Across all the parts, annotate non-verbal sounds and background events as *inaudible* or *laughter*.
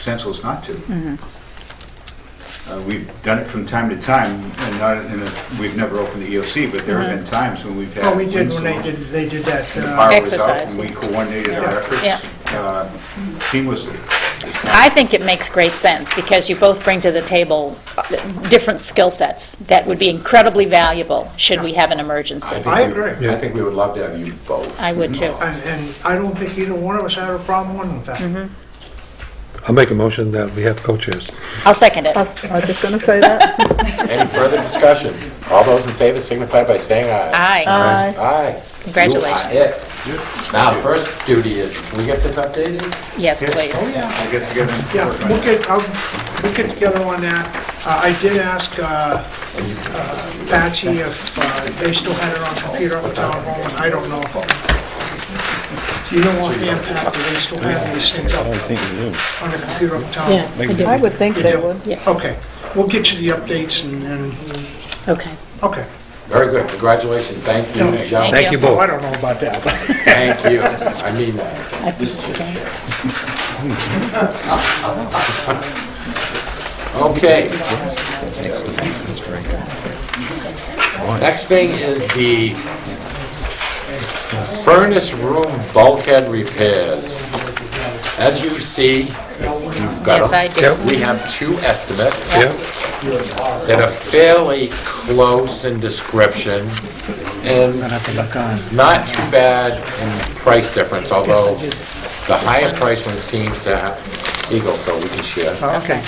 senseless not to. Uh, We've done it from time to time, and not, in a- we've never opened the EOC, but there Mm-hmm. have been times when we've had. Well, we did when they windstorms did, they did that. and The uh, power was out, Exercise, and we yeah. coordinated our Yeah. efforts uh, seamlessly. It's not- I think it makes great sense, because you both bring to the table uh, different skill sets that would be incredibly valuable should we have an emergency. think I we- agree. I think we would love to have you both. I would too. And, and I don't think either one of us had a problem with that. I'll make a motion that we have co-chairs. I'll second it. I was I was just going to say *laughs* that. Any further discussion? All those in favor signify by saying Aye. aye. Aye. Aye. Congratulations. You are it. Now, first duty is, can we get this updated? Yes, Oh, please. yeah, I'll get together and Yeah, work on we'll it. get, I'll, we'll get together on that. Uh, I did ask uh, uh, Patsy if uh, they still had it on computer up at town hall, and I don't know. You don't want the impact, do they still have these things up on the computer up at town? Yeah, hall? I do. I would think You they do? would. Yeah. Okay, we'll get you the updates and, and, Okay. okay. Very good, congratulations, thank you, Thank you. gentlemen. Thank you Oh, I both. don't know about that, but- Thank you, I mean that. I think they would. Okay. Next thing is the furnace room bulkhead repairs. As you see, if you've got Yes, I them, do. we have two estimates Yeah, that are fairly close in description and not too bad in price difference, although the higher price one seems to have, here you go, Phil, we can share. Okay.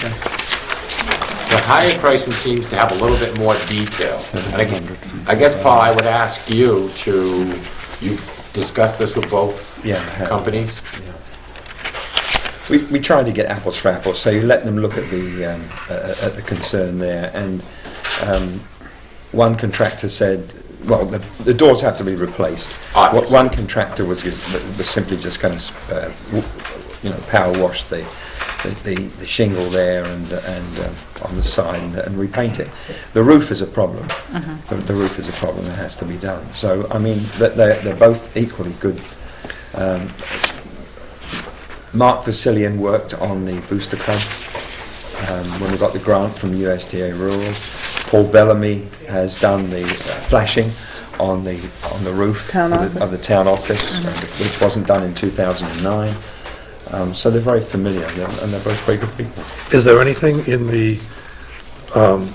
The higher price one seems to have a little bit more detail. And I gu- I guess, Paul, I would ask you to, you've discussed this with both Yeah, I have. companies? We, we tried to get apples for apples, so you let them look at the um, uh, at the concern there, and um, one contractor said, "Well, the, the doors have to be replaced." What Obviously. one contractor was was simply just going to, uh, w- you know, power wash the the, the, the shingle there and and um, on the side and, and repaint it. The roof is a problem. The, the roof is a problem that has to be done. So I mean, that they're, they're both equally good. Um, Mark Vasilian worked on the Booster Club um, when we got the grant from USDA Rural. Paul Bellamy has done the uh, flashing on the on the roof Town of, office. Mm-hmm. the, of the town office, uh, which wasn't done in 2009. Um, so they're very familiar, they're, and they're both very good people. is there anything in the um,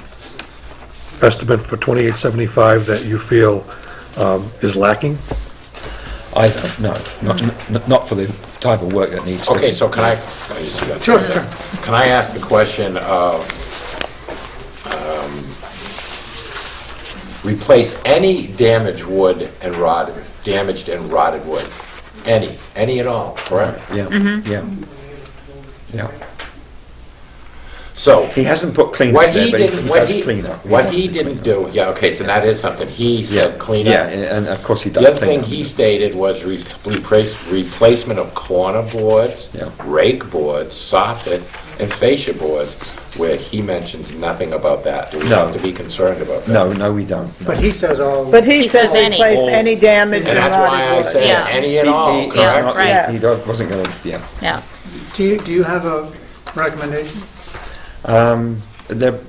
estimate for 2875 that you feel um, is lacking? I don't know, not, Mm-hmm. n- not for the type of work that needs to Okay, be. so can I? I just got- Can I ask the question of, um, replace any damaged wood and rotted, damaged and rotted wood? Any, any at all, correct? Yeah, Mm-hmm. yeah, yeah. So, He hasn't put clean what up there, he but he, didn't, he what does he, clean up. what does he clean didn't up. do, yeah, okay, so that is something, he said clean up. Yeah, and and of course he does The other clean thing up. he stated was re- replace, replacement of corner boards, Yeah. rake boards, soffit, and fascia boards, where he mentions nothing about that. Do we No. have to be concerned about that? No, no, we don't. no. But he says all, But he He said says any. replace any damage Oh. And in that's why I rotted said wood. Yeah. any and all, he's yeah, not- right. correct? He do- wasn't going to, yeah. Yeah. Do you, do you have a recommendation? Um, They're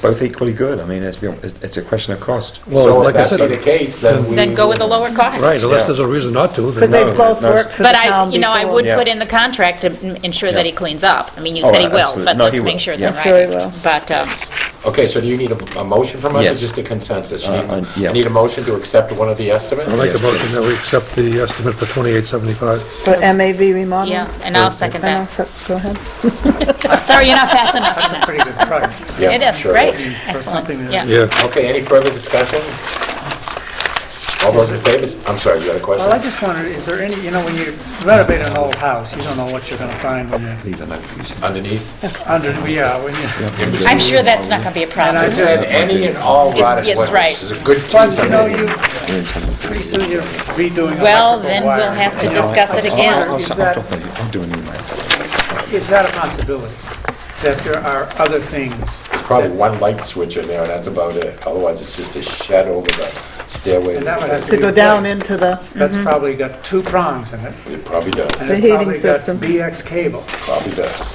both equally good. I mean, it's, it's a question of cost. So if like I that said, be the case, then we... Then go with the lower Right, cost. unless there's a reason not to, Because then uh, No, they've both no. worked for the But town I, before. you know, I would Yeah. put in the contract to m- ensure that Yeah. he cleans up. I mean, you Oh, said he will, absolutely. but No, let's he make will. sure it's in Yeah. writing. Sure he will. But, um, Okay, so do you need a a motion from us, or Yes. just a consensus? You Uh, uh, Need yeah. need a motion to accept one of the estimates? I'll make a motion that we accept the estimate for 2875. For MAV remodeling. yeah, and I'll second I know, that. so- Go ahead. Sorry, you're not fast enough on that. Pretty good price. Yeah, It is, sure. great, For excellent, something that- yeah. Yeah. Okay, any further discussion? All those in favor, s- I'm sorry, you had a question? well, I just wondered, is there any, you know, when you renovate an old house, you don't know what you're gonna find when you're Leave a note for you. Underneath? under, yeah, when you, I'm sure that's not going to be a problem. It said any and all rotted it's wood, right. which is a good key once you for know me. you, pretty soon you're redoing Well, electrical then we'll wire. have to discuss it again. I'll, Is I'll, that- I'll, I'll do an email. Is that a possibility, that there are other things? There's probably one light switch in there, and that's about it. Otherwise, it's just a shed over the stairway. And that would have To to go be down replaced. into the, That's probably got two prongs in it. It probably does, and The it heating probably got system. BX cable. probably does.